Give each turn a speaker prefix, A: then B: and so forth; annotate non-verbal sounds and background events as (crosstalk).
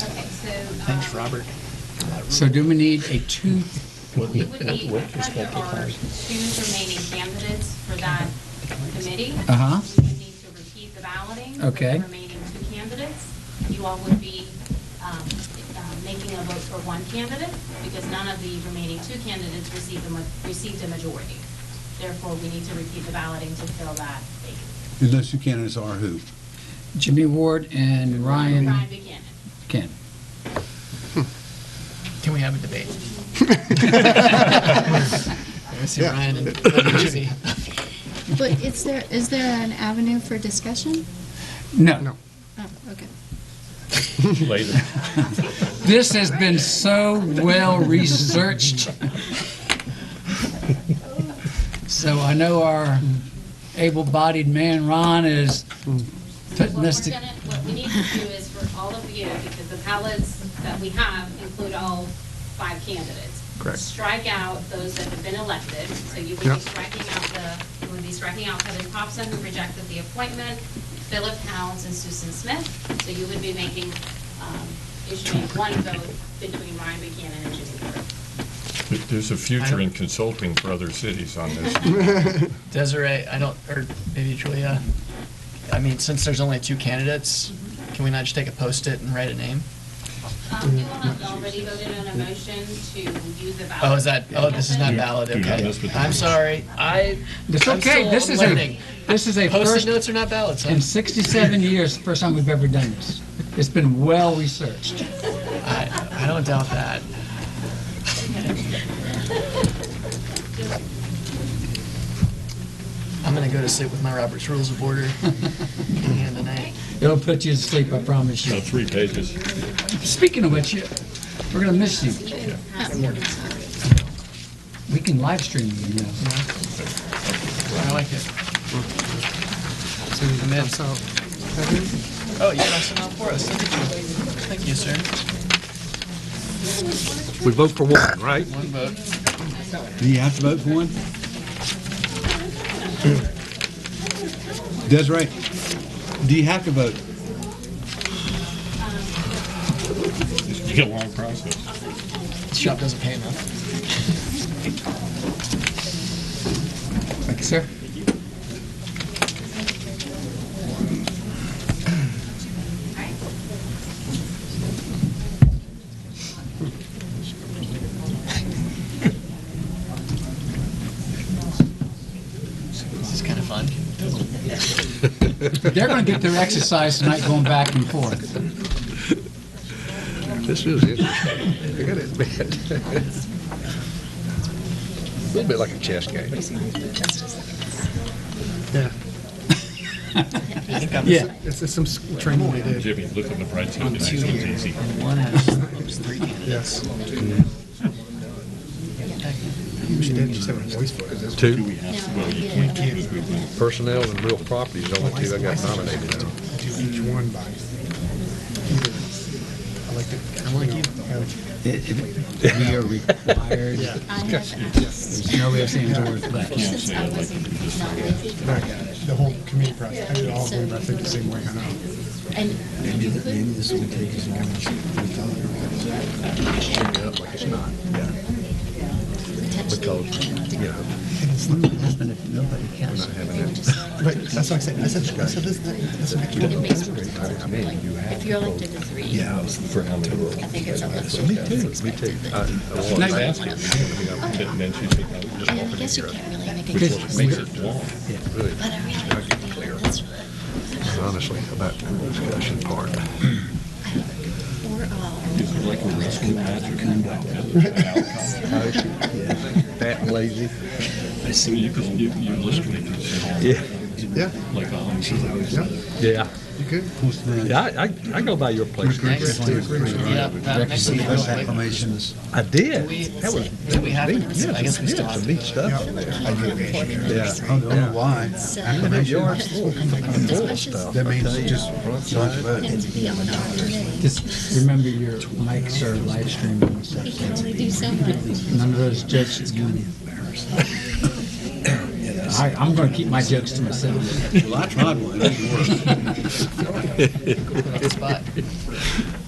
A: um,
B: Thanks, Robert.
C: So do we need a two,
A: We would
C: (laughs)
A: need,
B: With
A: because there
B: respect to
A: are
B: cars.
A: two remaining candidates for that committee.
C: Uh-huh.
A: We would need to repeat the balloting. for
C: Okay.
A: the remaining two candidates. You all would be um, uh, making a vote for one candidate because none of the remaining two candidates received a, ma- received a majority. Therefore, we need to repeat the balloting to fill that vacancy.
D: And those two candidates are who?
C: Jimmy Ward and Ryan
A: Ryan Buchanan.
C: Ken?
B: Can we have a debate? I see Ryan and
C: (laughs)
B: Jimmy.
E: But is there, is there an avenue for discussion?
C: No.
E: Oh, okay.
F: Later.
C: This has been so well-researched. So I know our able-bodied man, Ron, is
A: What
C: putting
A: we're
C: this to...
A: gonna, what we need to do is for all of you, because the ballots that we have include all five candidates.
B: Correct.
A: Strike out those that have been elected, so you would be
B: Yep.
A: striking out the, you would be striking out Heather Thompson, who rejected the appointment, Philip Pounds and Susan Smith, so you would be making, um, issuing one vote between Ryan Buchanan and Jimmy Ward.
F: There's a future in consulting for other cities on this.
B: Desiree, I don't, or maybe Julia, I mean, since there's only two candidates, can we not just take a post-it and write a name?
A: Um, you all have already voted on a motion to use the ballot.
B: Oh, is that, oh, this is not valid,
F: Do not
B: okay.
F: mess with the
B: I'm
F: names.
B: sorry, I,
C: It's
B: I'm
C: okay,
B: still
C: this is a,
B: learning.
C: this is a
B: Post-it
C: first,
B: notes are not valid, so
C: in 67 years, first time we've ever done this. It's been well-researched.
B: I, I don't doubt that. I'm gonna go to sleep with my Robert's Rules of Order in hand tonight.
C: It'll put you to sleep, I promise you.
F: Now, three pages.
C: Speaking of which, we're gonna miss you. We can live stream you now.
B: I like it. So the mid. Oh, you passed them out for us. Thank you. Thank you, sir.
G: We vote for one, right?
B: One vote.
D: Do you have to vote for one? Desiree, do you have to vote?
F: It's a long process.
B: Shop doesn't pay enough.
C: Thank you, sir.
B: This is kind of fun.
C: They're gonna get their exercise tonight going back and forth.
G: This is interesting. I gotta admit. A little bit like a chess game.
B: I think I'm.
C: Yeah.
H: It's, it's some s- training they did,
F: Jimmy, look on the bright side. It's easy.
B: One has three candidates.
H: yes. She did, she said her voice for it.
G: Two,
H: Can't
G: personnel and real property is the only two I got nominated on.
H: do each one by either elected. I like you.
C: We are required,
E: I have asked
C: there's no way of saying the word left.
E: since I wasn't nominated,
H: The whole committee process, I did all of them, but I think the same way, I know.
E: and you could,
G: Yeah, Like it's not, because, you know,
H: But that's what I said, I said, I said this, this makes
E: it makes me uncomfortable. Like, if you're elected to three. Yeah.
G: for how many rules?
E: I think it's unless you
G: Me too. I- I was
C: Nice.
G: asking, I mean,
F: And then she took out
E: And
F: just
E: I
F: open
E: guess you
F: here.
E: can't really make a
C: Because-
E: case.
F: Makes it long.
G: I'm really
E: But I really like the that's right.
G: honestly about the discussion part.
E: Or all.
G: Fat and lazy.
F: You could, you, you're listening to it.
G: Yeah.
H: Yeah,
F: Like, um,
G: Yeah.
H: you could.
G: Yeah, I, I- I go by your place.
B: Thanks. Yeah, uh, that makes me feel like-
G: I did.
B: Do we-
G: That was,
B: do we
G: that was
B: have
G: neat.
B: it?
G: Yes,
B: I guess we
G: yes,
B: still have
G: some
B: it.
G: neat stuff there. Yeah.
D: I don't know why.
E: So,
G: And then yours, full full stuff.
D: That means just don't vote.
E: and to be on our committee,
C: Just remember your mics are live streaming, so
E: you can only do so much.
C: none of those jokes is going in. I, I'm gonna keep my jokes to myself.
D: Well, I tried one, it didn't work.
B: Put on the spot.